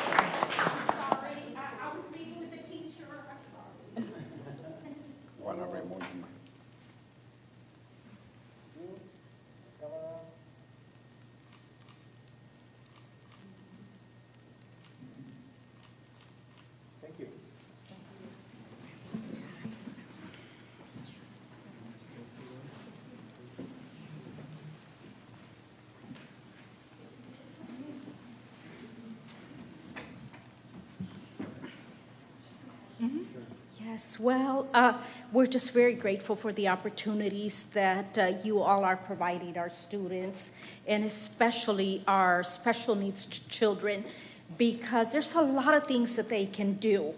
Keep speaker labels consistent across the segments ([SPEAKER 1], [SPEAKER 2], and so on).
[SPEAKER 1] Sorry, I, I was speaking with the teacher, I'm sorry.
[SPEAKER 2] One array more than mine.
[SPEAKER 3] Thank you.
[SPEAKER 1] Yes, well, uh, we're just very grateful for the opportunities that uh, you all are providing our students, and especially our special needs ch- children, because there's a lot of things that they can do.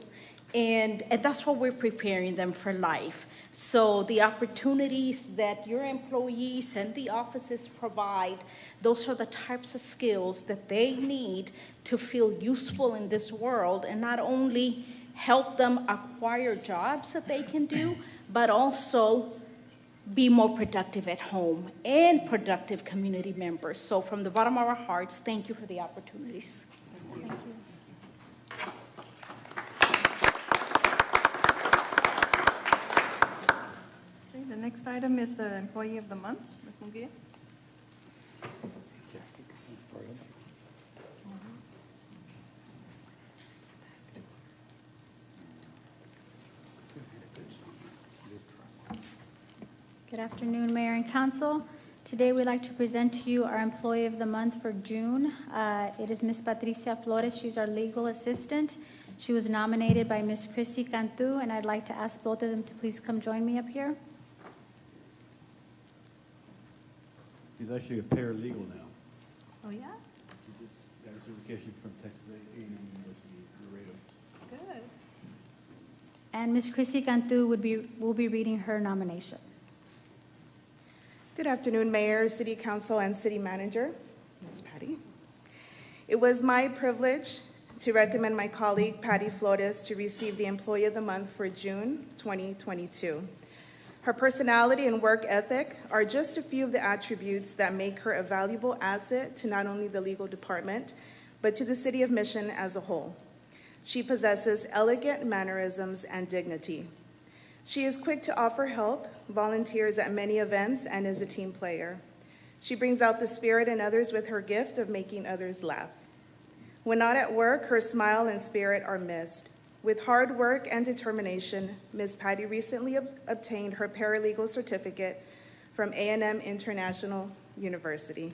[SPEAKER 1] And, and that's what we're preparing them for life. So the opportunities that your employees and the offices provide, those are the types of skills that they need to feel useful in this world and not only help them acquire jobs that they can do, but also be more productive at home and productive community members. So from the bottom of our hearts, thank you for the opportunities.
[SPEAKER 4] Okay, the next item is the Employee of the Month, Ms. Munguia.
[SPEAKER 5] Good afternoon, Mayor and Council. Today, we'd like to present to you our Employee of the Month for June. Uh, It is Ms. Patricia Flores. She's our legal assistant. She was nominated by Ms. Chrissy Cantu, and I'd like to ask both of them to please come join me up here.
[SPEAKER 6] He's actually a paralegal now.
[SPEAKER 4] Oh, yeah?
[SPEAKER 6] He just got a certification from Texas A&M University, Laredo.
[SPEAKER 4] Good.
[SPEAKER 5] And Ms. Chrissy Cantu would be, will be reading her nomination.
[SPEAKER 7] Good afternoon, Mayor, City Council, and City Manager, Ms. Patty. It was my privilege to recommend my colleague Patty Flores to receive the Employee of the Month for June 2022. Her personality and work ethic are just a few of the attributes that make her a valuable asset to not only the legal department, but to the City of Mission as a whole. She possesses elegant mannerisms and dignity. She is quick to offer help, volunteers at many events, and is a team player. She brings out the spirit in others with her gift of making others laugh. When not at work, her smile and spirit are missed. With hard work and determination, Ms. Patty recently ob- obtained her paralegal certificate from A&M International University.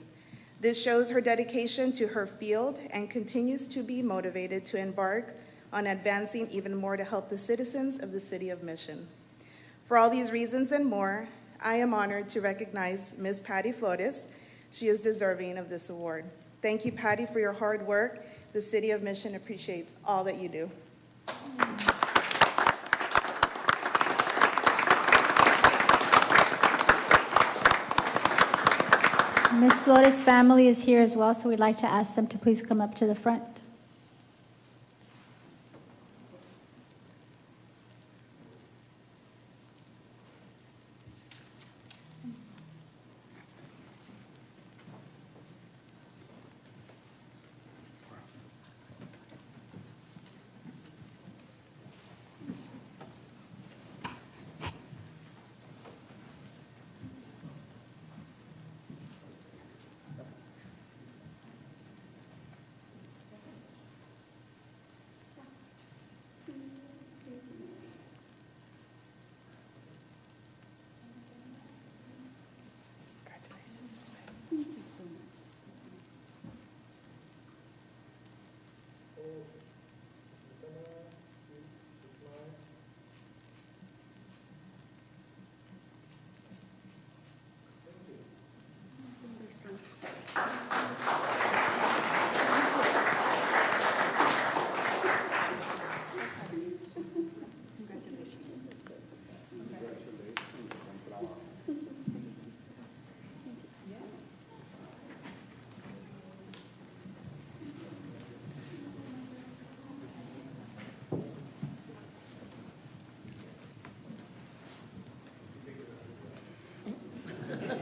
[SPEAKER 7] This shows her dedication to her field and continues to be motivated to embark on advancing even more to help the citizens of the City of Mission. For all these reasons and more, I am honored to recognize Ms. Patty Flores. She is deserving of this award. Thank you, Patty, for your hard work. The City of Mission appreciates all that you do.
[SPEAKER 5] Ms. Flores' family is here as well, so we'd like to ask them to please come up to the front.